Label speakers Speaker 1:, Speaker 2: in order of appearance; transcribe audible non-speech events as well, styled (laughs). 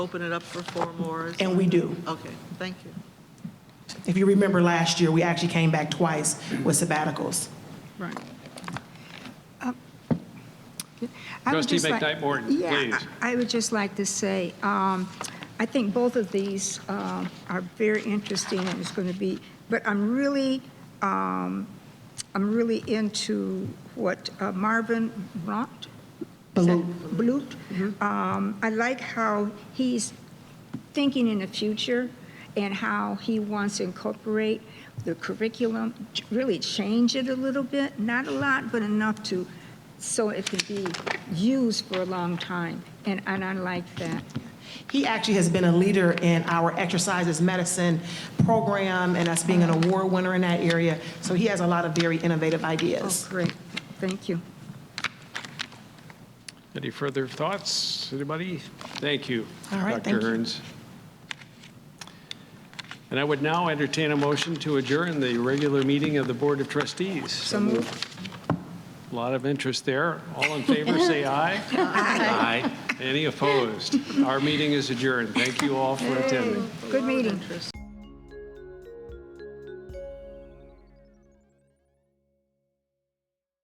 Speaker 1: Open it up for four more? is-
Speaker 2: And we do.
Speaker 1: Okay, thank you.
Speaker 2: If you remember last year, we actually came back twice with sabbaticals.
Speaker 1: Right.
Speaker 3: I Um, would
Speaker 4: Trustee
Speaker 3: just like-
Speaker 4: McKnight Morton,
Speaker 3: Yeah,
Speaker 4: please.
Speaker 3: I I would just like to say, um, I think both of these um, are very interesting, and it's going to be, but I'm really, um, I'm really into what uh, Marvin Brant?
Speaker 2: Balut.
Speaker 3: Balut. Um, I like how he's thinking in the future and how he wants to incorporate the curriculum, really change it a little bit, not a lot, but enough to, so it can be used for a long time. And, and I like that.
Speaker 2: He actually has been a leader in our exercises medicine program and us being an award winner in that area. So he has a lot of very innovative
Speaker 3: Oh,
Speaker 2: ideas.
Speaker 3: great. Thank you.
Speaker 4: Any further thoughts, anybody? Thank you,
Speaker 2: All right,
Speaker 4: Dr.
Speaker 2: thank you.
Speaker 4: Hearns. And I would now entertain a motion to adjourn the regular meeting of the Board of Trustees.
Speaker 3: So moved.
Speaker 4: A lot of interest there. All in
Speaker 2: (laughs)
Speaker 4: favor, say aye. Aye. Any opposed? Our meeting is adjourned. Thank you all for attending.
Speaker 3: Good meeting.
Speaker 1: Interest.